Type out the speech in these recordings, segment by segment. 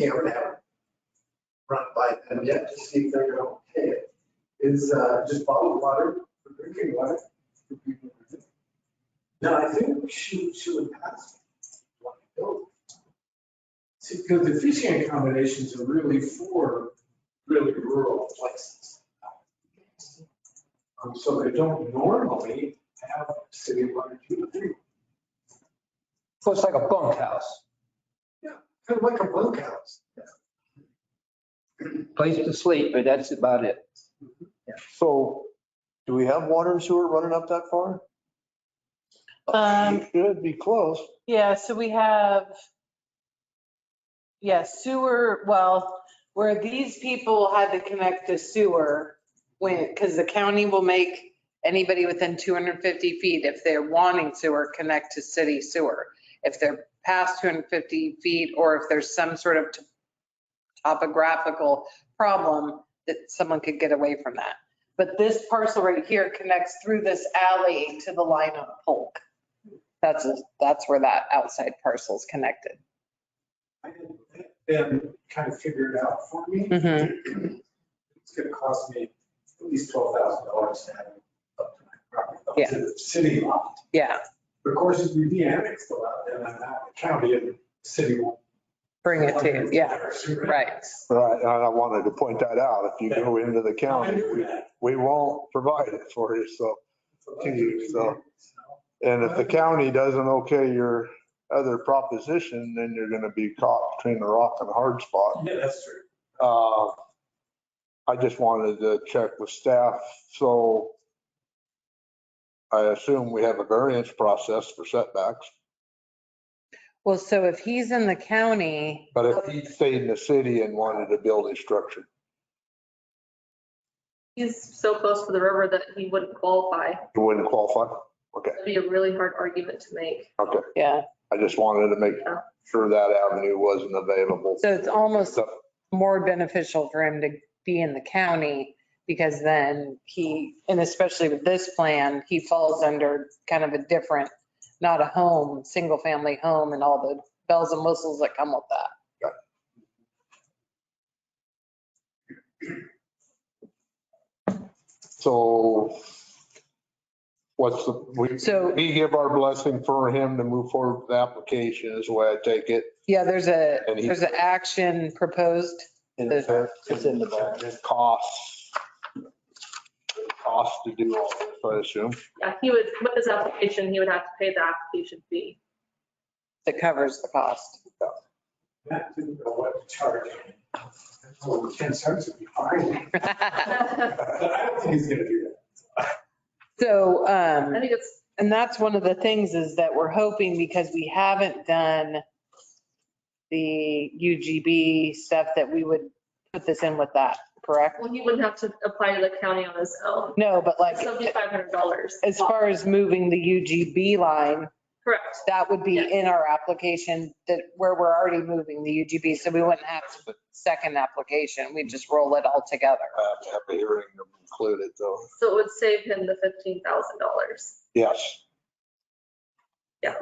Cameron have run by them yet to see if they're going to pay it, is uh, just bottled water for drinking water. for people to drink. No, I think she, she would pass. one of those. See, because the fishing accommodations are really for really rural places. Um, so they don't normally have city water treatment, So it's like a bunkhouse, Kind of like a bunkhouse. place to sleep, but that's about it. So do we have water and sewer running up that far? Um, It Should be close. yeah, so we have, yeah, sewer, well, where these people had to connect to sewer when, because the county will make anybody within 250 feet, if they're wanting sewer, connect to city sewer. If they're past 250 feet or if there's some sort of t- topographical problem, that someone could get away from that. But this parcel right here connects through this alley to the line on Polk. That's, that's where that outside parcel's connected. I didn't let them kind of figure it out for me. Mm-hmm. It's gonna cost me at least twelve thousand dollars to have it up to my property, up to the city lot. Yeah, But of course, if we de-annex the lot, then I'm out of the county and the city won't. bring it to, yeah, right. Right, and I wanted to point that out. If you go into the I county, knew that. we won't provide it for you, so. So- And if the county doesn't okay your other proposition, then you're gonna be caught between a rock and a hard spot. Yeah, that's true. Uh, I just wanted to check with staff, so I assume we have a variance process for setbacks, Well, so if he's in the county, but if he stayed in the city and wanted to build a structure, He's so close to the river that he wouldn't qualify. it wouldn't qualify? Okay, That'd be a really hard argument to make. okay. yeah, I just wanted to make sure that avenue wasn't available. so it's almost So, more beneficial for him to be in the county because then he, and especially with this plan, he falls under kind of a different, not a home, single family home and all the bells and whistles that come with that. So what's the, we, So- we give our blessing for him to move forward with the application is the way I take it. Yeah, there's a, And he- there's an action proposed. And It's- it's in the back. It costs, it costs to do all this, I assume. Yeah, he would, with his application, he would have to pay the application fee. that covers the cost. Matt didn't know what to charge. Well, ten cents would be fine, but I don't think he's gonna do So, I um, think it's, and that's one of the things is that we're hoping because we haven't done the UGB stuff that we would put this in with that, correct? well, he wouldn't have to apply to the county on his own. No, but like, Seventy-five hundred dollars. as far as moving the UGB line, Correct. that would be Yes. in our application that, where we're already moving the UGB, so we wouldn't have to second application, we just roll it all together. I have to have a hearing to include it though. So it would save him the fifteen thousand dollars. Yes. Yeah.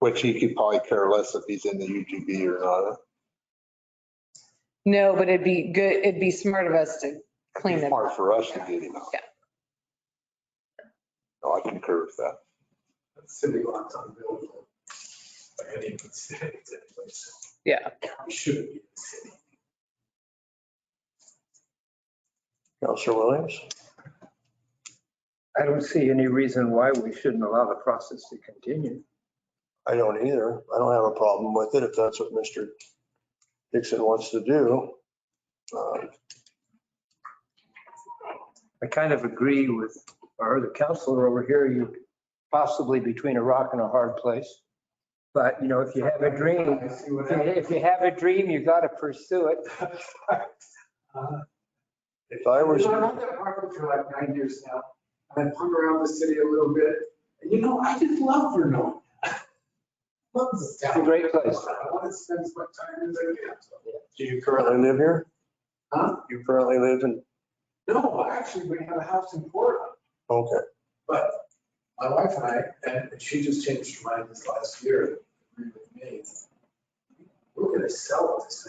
Which he could probably care less if he's in the UGB or not. No, but it'd be good, it'd be smart of us to clean it. Smart for us to get him out. Yeah. No, I concur with that. that. City lots unbuildable. By any means, it's a place. Yeah. County Shouldn't be the city. Counselor Williams? I don't see any reason why we shouldn't allow the process to continue. I don't either. I don't have a problem with it if that's what Mr. Dixon wants to do. Uh, I kind of agree with our other counselor over here, you possibly between a rock and a hard place. But, you know, if you have a dream, I see what happened. if you have a dream, you got to pursue it. Uh, If I was- You know, I've had that property for like nine years now, and I've hung around the city a little bit, and you know, I just love Vernon. Love this town. It's a great place. I want to spend as much time as I can. Do you currently live here? Huh? You currently live in, No, actually, we have a house in Portland, okay. but my wife and I, and she just changed her mind this last year, agreed with me. we're gonna sell this